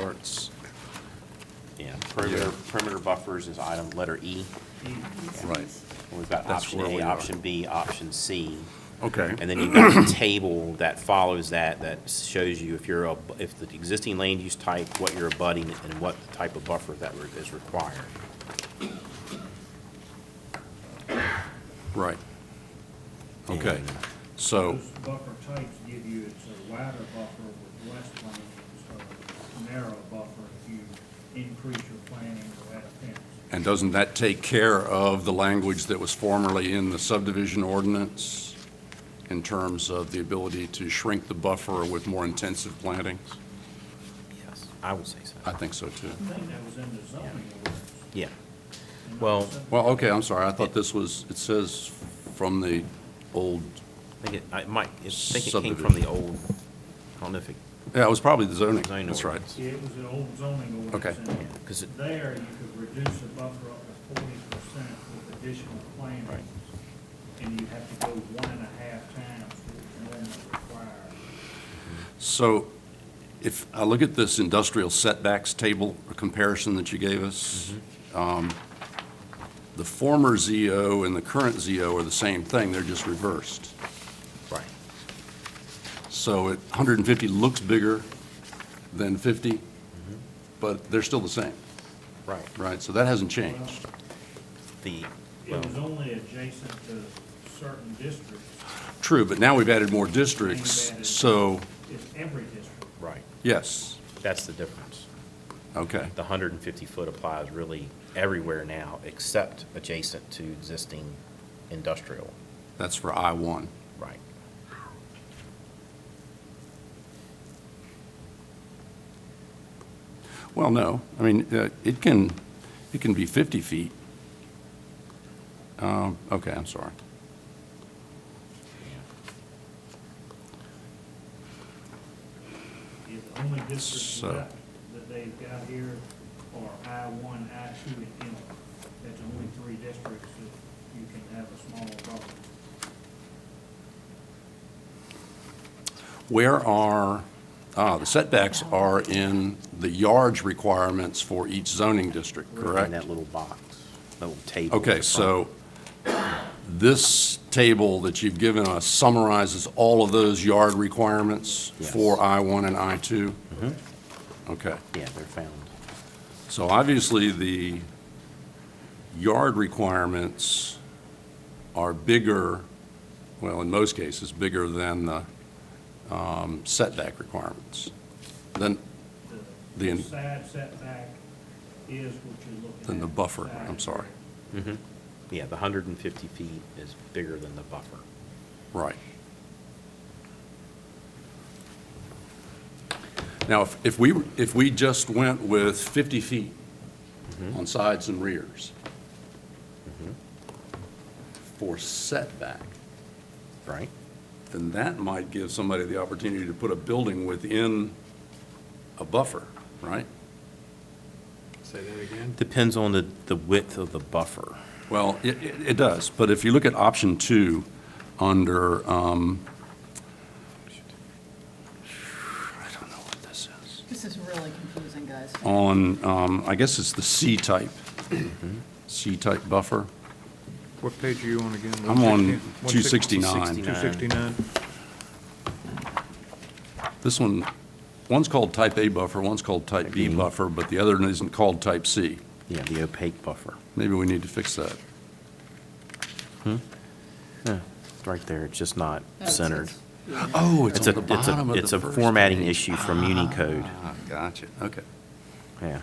starts. Yeah, perimeter, Yeah. perimeter buffers is item letter E. Right. And We've got That's option where we A, are. option B, option C. Okay. And then you've got the table that follows that, that shows you if you're, ab- if the existing land use type, what you're abutting, and what the type of buffer that re- is required. Right. Okay, And- uh, Oh. so, Those buffer types give you, it's a wider buffer with less planting, so a narrow buffer if you increase your planting or add a fence. and doesn't that take care of the language that was formerly in the subdivision ordinance in terms of the ability to shrink the buffer with more intensive plantings? Yes, I would say I so. think so, too. I think that was in the zoning ordinance. Yeah. Well, Well, okay, I'm sorry, I thought this was, it says from the old, I think it, I might, I think it came from the old, I don't know if it, yeah, it was probably the zoning, Zoning that's right. ordinance. Yeah, it was the old zoning Okay. ordinance. and because it, There, you could reduce the buffer up to forty percent with additional Right. plantings. And you have to go one and a half times what normally required. So if I look at this industrial setbacks table comparison that you gave us, um, the former ZO and the current ZO are the same thing, they're just reversed. right, So it, 150 looks bigger than 50, but they're still the same, right. right? So that hasn't changed. The, well, It was only adjacent to certain districts, True, but now we've added more districts, added- so, it's every district. right, yes, that's the difference. okay, the hundred and fifty foot applies really everywhere now, except adjacent to existing industrial. that's for I-1. Right. Well, no, I mean, uh, it can, it can be 50 feet. Um, Okay, I'm sorry. Yeah, The only districts So- left that they've got here are I one, I two, and M. That's only three districts that you can have a small buffer. Where are, ah, the setbacks are in the yards requirements for each zoning district, In correct? that little box, that little table. at Okay, the so this table that you've given us summarizes all of those yard requirements Yes. for I-1 and I-2? Okay. front. Yeah, they're found. So obviously, the yard requirements are bigger, well, in most cases, bigger than the um, setback requirements. Then, The The in- side setback is what you're looking at. Then the buffer, side I'm sorry. Yeah, the hundred and fifty feet is bigger than the buffer. right. Now, if if we, if we just went with 50 feet on sides and rears for setback, Right. then that might give somebody the opportunity to put a building within a buffer, right? Say that again? Depends on the, the width of the buffer. Well, it, it it does, but if you look at option two, under, um, I don't know what this is, This is really confusing, guys. on, um, I guess it's the C type, Mm-hmm. C type buffer. What page are you on again? I'm on 160 269. 269. This one, one's called type A buffer, one's called type B buffer, but the other one isn't called type C. Yeah, the opaque buffer. Maybe we need to fix that. Yeah, it's right there. It's just not centered. Oh, It's a, it's a, it's a formatting issue from Unicode. Ah, gotcha, okay. Yeah.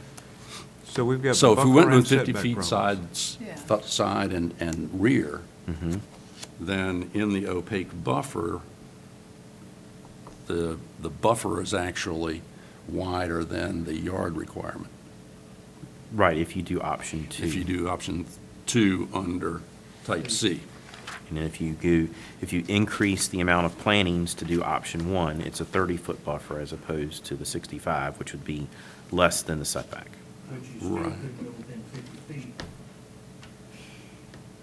So we've got. So if we buffer went and with 50 setback feet problems. sides, Yeah. th- side and, and rear, Mm-hmm. then in the opaque buffer, the, the buffer is actually wider than the yard requirement. Right, if you do option two. If you do option two under type C. And then if you go, if you increase the amount of plantings to do option one, it's a 30-foot buffer as opposed to the 65, which would be less than the setback But you still Right. could go within fifty feet,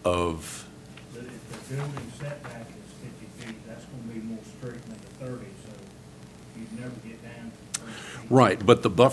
Of, but if the building setback is fifty feet, that's gonna be more strict than the thirty, so you'd never get down to thirty feet. right, but the buffer